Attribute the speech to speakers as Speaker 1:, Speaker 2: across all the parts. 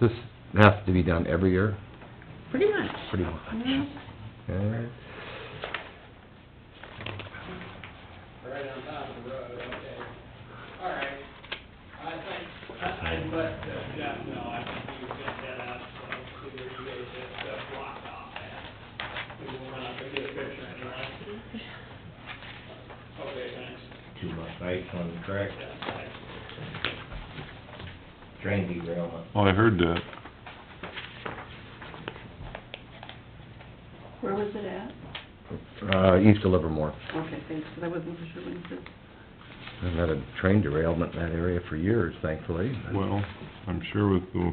Speaker 1: This has to be done every year,
Speaker 2: Pretty much.
Speaker 1: pretty much.
Speaker 2: Yeah.
Speaker 1: Okay.
Speaker 3: right on top of the road, okay. All right. I think, I, I let uh, Jeff know, I think you get that out, so see where you guys have stuff blocked off at. We will run up and get a picture anyway. Okay, thanks.
Speaker 4: to my face on the correct
Speaker 3: Yeah, thanks.
Speaker 4: drain derailment.
Speaker 5: Well, I heard that.
Speaker 2: Where was it at?
Speaker 1: Uh, east of Livermore.
Speaker 2: Okay, thanks, 'cause I wasn't for sure when you said.
Speaker 1: I've had a train derailment in that area for years, thankfully.
Speaker 5: Well, I'm sure with the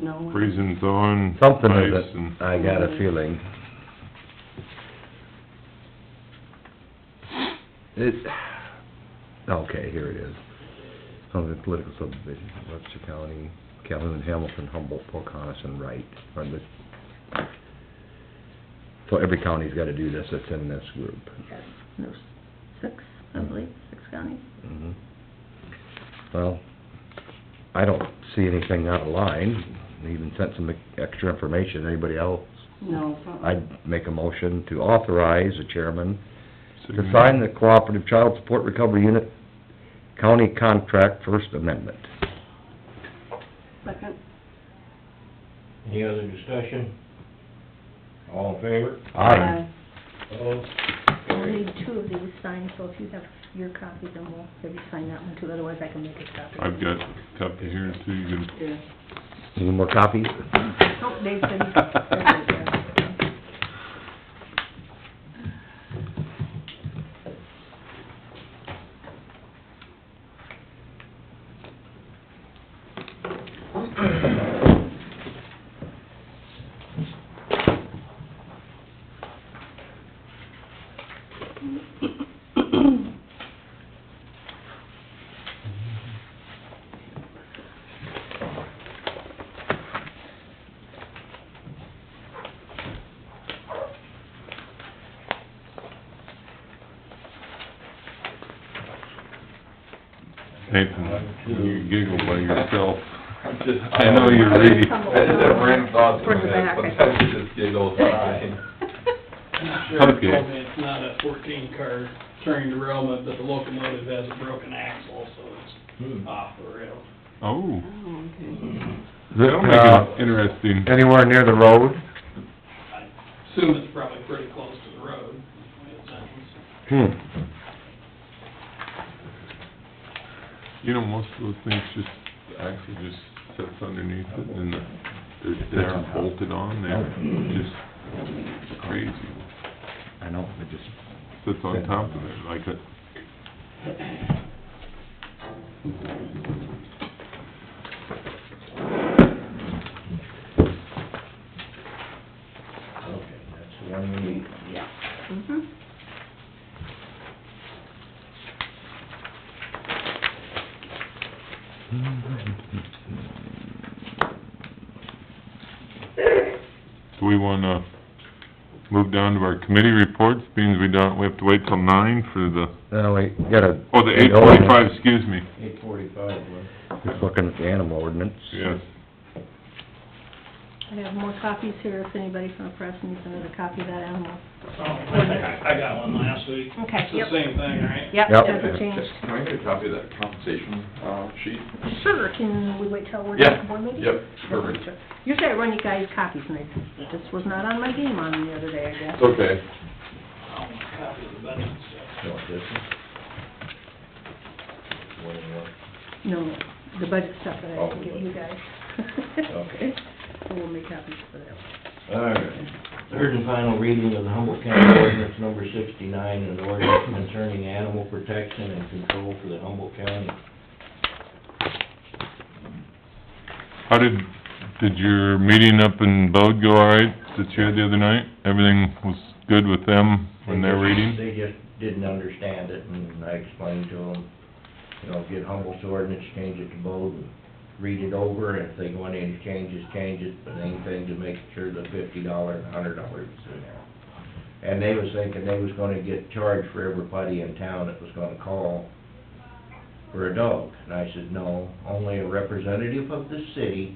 Speaker 2: snow.
Speaker 5: freezing thawing
Speaker 1: Something of
Speaker 5: ice and
Speaker 1: it, I got a feeling. It, okay, here it is. Some of the political subdivisions, Webster County, Calhoun, Hamilton, Humboldt, Pocahontas, and Wright are the... So every county's gotta do this that's in this group.
Speaker 6: Yes, there's six, I believe, six counties.
Speaker 1: Mhm. Well, I don't see anything out of line. They even sent some extra information. Anybody else
Speaker 2: No. uh-uh.
Speaker 1: I'd make a motion to authorize the chairman
Speaker 5: city
Speaker 1: to sign the Cooperative Child Support Recovery Unit County Contract First Amendment.
Speaker 2: Second,
Speaker 4: Any other discussion? All in favor?
Speaker 2: Aye.
Speaker 4: Opposed?
Speaker 6: We'll need two of these signed, so if you have your copy, then we'll maybe sign that one too, otherwise I can make a copy.
Speaker 5: I've got a copy here too, you can,
Speaker 2: yeah.
Speaker 1: Any more copies?
Speaker 6: Oh, they said- That's
Speaker 2: Oh,
Speaker 5: Nathan, you giggle by yourself.
Speaker 7: I'm just-
Speaker 5: I know you're reading.
Speaker 7: I just have random thoughts in
Speaker 6: Towards
Speaker 7: my
Speaker 6: the
Speaker 7: head,
Speaker 6: back.
Speaker 7: sometimes you just giggle.
Speaker 3: The Sheriff
Speaker 5: Okay.
Speaker 3: told me it's not a fourteen car train derailment, but the locomotive has a broken axle, so it's
Speaker 4: Hmm.
Speaker 3: off the rail.
Speaker 5: Oh,
Speaker 2: Oh, okay.
Speaker 5: that'll make
Speaker 1: uh,
Speaker 5: it interesting.
Speaker 1: Anywhere near the road?
Speaker 3: I assume it's probably pretty close to the road. It sounds.
Speaker 1: Hmm.
Speaker 5: You know, most of those things just, the axle just sits underneath it and the- they're, they're bolted on there, just crazy.
Speaker 1: I know, I just...
Speaker 5: Sits on top of it like a,
Speaker 4: Okay, that's the one we need.
Speaker 2: Yeah. Mm-hmm.
Speaker 5: Do we wanna move down to our committee reports, means we don't, we have to wait till nine for the,
Speaker 1: Now, we gotta...
Speaker 5: oh, the eight forty-five, excuse me,
Speaker 4: Eight forty-five, one.
Speaker 1: Just looking at the animal ordinance.
Speaker 5: yes.
Speaker 6: I have more copies here if anybody from the press needs another copy of that animal.
Speaker 3: Oh, I I got one last week.
Speaker 6: Okay,
Speaker 3: It's the
Speaker 6: yep.
Speaker 3: same thing, right?
Speaker 6: Yep,
Speaker 1: Yep.
Speaker 6: doesn't change.
Speaker 7: Can I get a copy of that compensation, uh, sheet?
Speaker 6: Sure, can we wait till we're
Speaker 7: Yeah,
Speaker 6: done with board meeting?
Speaker 7: yep, perfect.
Speaker 6: Usually I run you guys copies, and I, this was not on my game on the other day, I guess.
Speaker 7: It's okay.
Speaker 3: I'll Um, copy the budget and stuff.
Speaker 4: You want this one? One and one.
Speaker 6: No, the budget stuff that I
Speaker 4: Oh,
Speaker 6: can give you guys.
Speaker 4: Okay.
Speaker 6: So we'll make copies for that.
Speaker 4: All right. Third and final reading of the Humboldt County Ordinance Number sixty-nine, an ordinance concerning animal protection and control for the Humboldt County.
Speaker 5: How did, did your meeting up in Bode go all right, that you had the other night? Everything was good with them when they're reading?
Speaker 4: They just didn't understand it, and I explained to them, you know, get Humboldt's ordinance, change it to bold, and read it over, and if they want any changes, change it, but main thing to make sure the fifty dollar and hundred dollars is in there. And they was thinking they was gonna get charged for everybody in town that was gonna call for a dog, and I said, no, only a representative of the city